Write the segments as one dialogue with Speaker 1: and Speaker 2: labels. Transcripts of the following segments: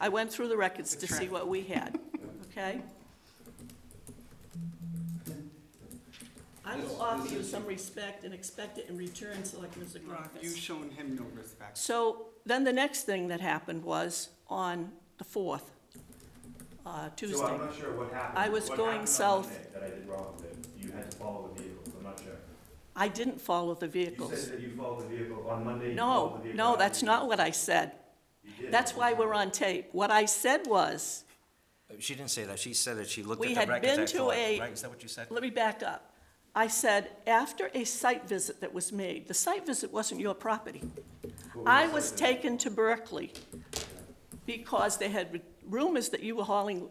Speaker 1: I went through the records to see what we had, okay? I will offer you some respect and expect it in return, Selectman Zagrakis.
Speaker 2: You've shown him no respect.
Speaker 1: So then the next thing that happened was on the 4th, uh,
Speaker 3: So
Speaker 1: Tuesday.
Speaker 3: I'm not sure what happened.
Speaker 1: I was
Speaker 3: what
Speaker 1: going
Speaker 3: happened on
Speaker 1: south.
Speaker 3: Monday That I did wrong, that you had to follow the vehicle, I'm not sure.
Speaker 1: I didn't follow the
Speaker 3: You
Speaker 1: vehicles.
Speaker 3: said that you followed the vehicle on Monday. you followed
Speaker 1: No,
Speaker 3: the vehicle
Speaker 1: no,
Speaker 3: after
Speaker 1: that's
Speaker 3: you-
Speaker 1: not what I said.
Speaker 3: You did.
Speaker 1: That's why we're on tape. What I said was,
Speaker 4: She didn't say that, she said that she looked
Speaker 1: We
Speaker 4: at the
Speaker 1: had
Speaker 4: records
Speaker 1: been
Speaker 4: at
Speaker 1: to
Speaker 4: Thornton,
Speaker 1: a-
Speaker 4: right, is that what you said?
Speaker 1: let me back up. I said, after a site visit that was made, the site visit wasn't your property.
Speaker 3: What
Speaker 1: I
Speaker 3: the
Speaker 1: was
Speaker 3: site visit?
Speaker 1: taken to Berkeley because they had rumors that you were hauling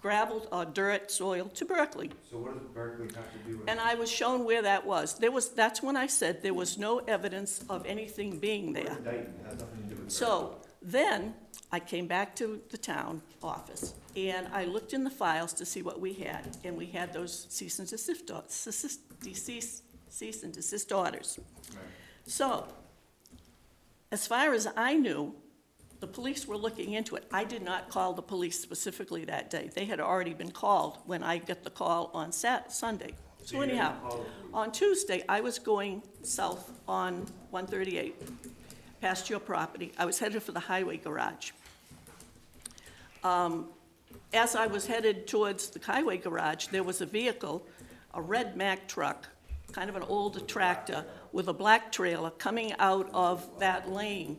Speaker 1: gravel or dirt, soil to Berkeley.
Speaker 3: So what does Berkeley have to do with?
Speaker 1: And I was shown where that was. There was, that's when I said there was no evidence of anything being there.
Speaker 3: Dayton has nothing to do with.
Speaker 1: So then I came back to the town office and I looked in the files to see what we had. And we had those cease and desist, or- cease- cease, cease and desist orders.
Speaker 3: Berkeley. Right.
Speaker 1: So, as far as I knew, the police were looking into it. I did not call the police specifically that day. They had already been called when I got the call on Sat, Sunday. So
Speaker 3: you didn't
Speaker 1: anyhow,
Speaker 3: call the police?
Speaker 1: on Tuesday, I was going south on one thirty-eight, past your property. I was headed for the highway garage. Um, As I was headed towards the highway garage, there was a vehicle, a red Mack truck, kind of an old tractor with a black trailer coming out of that lane,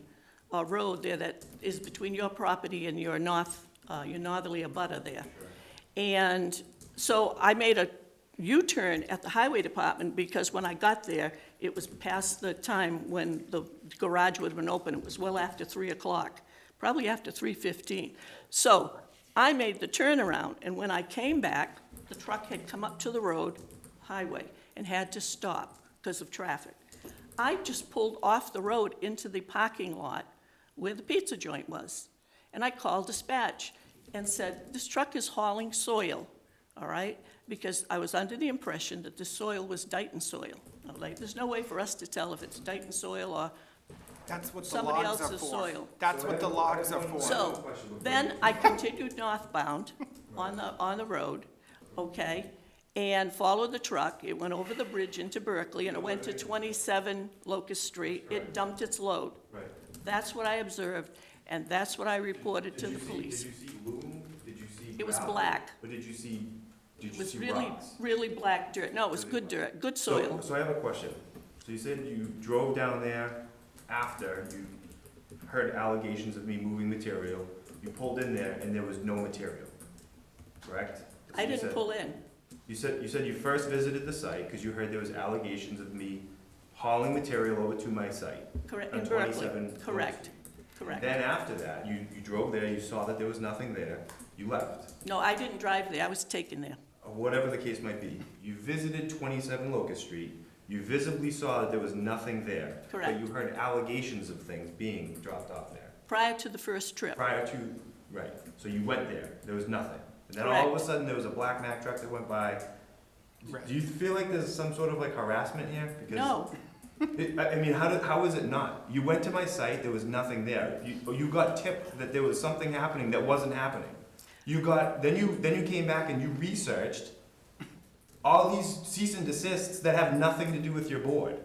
Speaker 1: uh, road there that is between your property and your north, uh, your northerly abutter there. And so I made a U-turn at the highway department because when I got there, it was past the time when the garage would have been open. It was well after three o'clock, probably after three fifteen. So I made the turnaround, and when I came back, the truck had come up to the road, highway, and had to stop because of traffic. I just pulled off the road into the parking lot where the pizza joint was. And I called dispatch and said, this truck is hauling soil, all right? Because I was under the impression that the soil was Dayton soil. I'm like, there's no way for us to tell if it's Dayton soil or,
Speaker 2: That's what the
Speaker 1: Somebody
Speaker 2: logs are
Speaker 1: else's
Speaker 2: for.
Speaker 1: soil.
Speaker 2: That's what the logs are for.
Speaker 1: so, then I continued northbound on the, on the road, okay? And followed the truck, it went over the bridge into Berkeley, and it went to twenty-seven Locust Street, it dumped its load.
Speaker 3: Right.
Speaker 1: That's what I observed, and that's what I reported to
Speaker 3: Did
Speaker 1: the
Speaker 3: you see-
Speaker 1: police.
Speaker 3: Did you see loom? Did you see?
Speaker 1: It was
Speaker 3: gravel?
Speaker 1: black.
Speaker 3: But did you see, did
Speaker 1: It
Speaker 3: you
Speaker 1: was
Speaker 3: see
Speaker 1: really,
Speaker 3: rocks?
Speaker 1: really black dirt. No, it was good dirt, good soil.
Speaker 3: So, so I have a question. So you said you drove down there after you heard allegations of me moving material. You pulled in there and there was no material, correct? That's
Speaker 1: I
Speaker 3: what you
Speaker 1: didn't
Speaker 3: said.
Speaker 1: pull in.
Speaker 3: You said, you said you first visited the site because you heard there was allegations of me hauling material over to my site.
Speaker 1: Correct,
Speaker 3: on
Speaker 1: in Berkeley.
Speaker 3: 27 Locust
Speaker 1: Correct,
Speaker 3: Street.
Speaker 1: correct.
Speaker 3: Then after that, you, you drove there, you saw that there was nothing there, you left.
Speaker 1: No, I didn't drive there. I was taken there.
Speaker 3: or whatever the case might be, you visited 27 Locust Street, you visibly saw that there was nothing there.
Speaker 1: Correct.
Speaker 3: But you heard allegations of things being dropped off there.
Speaker 1: Prior to the first trip,
Speaker 3: Prior to, right, so you went there, there was nothing. And then all of a
Speaker 1: Correct.
Speaker 3: sudden, there was a black Mack truck that went by.
Speaker 2: Right.
Speaker 3: Do you feel like there's some sort of like harassment here? Because
Speaker 1: no,
Speaker 3: it- I I mean, how, did- how is it not? You went to my site, there was nothing there. You, oh, you got tipped that there was something happening that wasn't happening. You got, then you, then you came back and you researched all these cease and desists that have nothing to do with your board.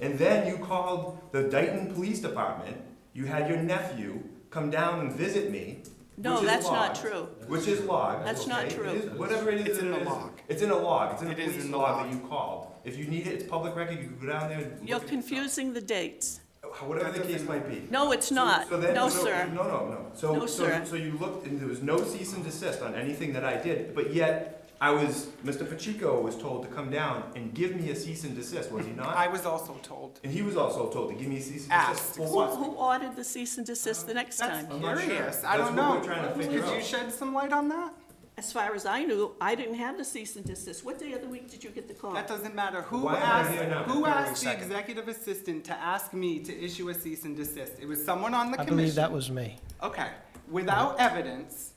Speaker 3: And then you called the Dayton Police Department, you had your nephew come down and visit me,
Speaker 1: No,
Speaker 3: which is
Speaker 1: that's not
Speaker 3: logged,
Speaker 1: true.
Speaker 3: Which is logged.
Speaker 1: That's not
Speaker 3: okay? It
Speaker 1: true.
Speaker 3: is- Whatever it is.
Speaker 2: It's
Speaker 3: that
Speaker 2: in
Speaker 3: it
Speaker 2: the
Speaker 3: is,
Speaker 2: log.
Speaker 3: It's in a log, it's in a
Speaker 2: It is
Speaker 3: police
Speaker 2: in the
Speaker 3: log
Speaker 2: log.
Speaker 3: that you called. If you need it, it's public record, you can go down there and look
Speaker 1: you're
Speaker 3: at it yourself.
Speaker 1: confusing the dates.
Speaker 3: Whatever the case might be.
Speaker 1: No, it's not.
Speaker 3: So then-
Speaker 1: Uh, No,
Speaker 3: so-
Speaker 1: sir.
Speaker 3: No, no, no. So,
Speaker 1: No,
Speaker 3: so,
Speaker 1: sir.
Speaker 3: so you looked, and there was no cease and desist on anything that I did, but yet, I was, Mr. Pacheco was told to come down and give me a cease and desist, was he
Speaker 2: I
Speaker 3: not?
Speaker 2: was also told.
Speaker 3: And he was also told to give me a cease and desist
Speaker 2: Asked.
Speaker 3: for
Speaker 1: Who,
Speaker 3: what?
Speaker 1: who ordered the cease and desist the next
Speaker 2: That's
Speaker 1: time?
Speaker 3: I'm not sure.
Speaker 2: curious. I
Speaker 3: That's
Speaker 2: don't
Speaker 3: what
Speaker 2: know.
Speaker 3: we're trying to figure
Speaker 2: Could you
Speaker 3: out.
Speaker 2: shed some light on that?
Speaker 1: As far as I knew, I didn't have the cease and desist. What day of the week did you get the call?
Speaker 2: That doesn't matter. Who
Speaker 3: Why am I
Speaker 2: asked,
Speaker 3: here now?
Speaker 2: who
Speaker 3: Wait a
Speaker 2: asked the
Speaker 4: second.
Speaker 2: executive assistant to ask me to issue a cease and desist? It was someone on the
Speaker 5: I
Speaker 2: commission.
Speaker 5: believe that was me.
Speaker 2: Okay, without evidence,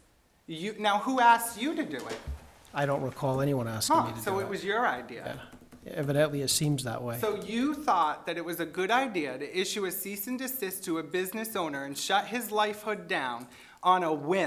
Speaker 2: you, now who asked you to do it?
Speaker 5: I don't recall anyone asking me
Speaker 2: Huh,
Speaker 5: to
Speaker 2: so
Speaker 5: do
Speaker 2: it
Speaker 5: it.
Speaker 2: was your idea.
Speaker 5: Evidently, it seems that way.
Speaker 2: So you thought that it was a good idea to issue a cease and desist to a business owner and shut his lifehood down on a whim.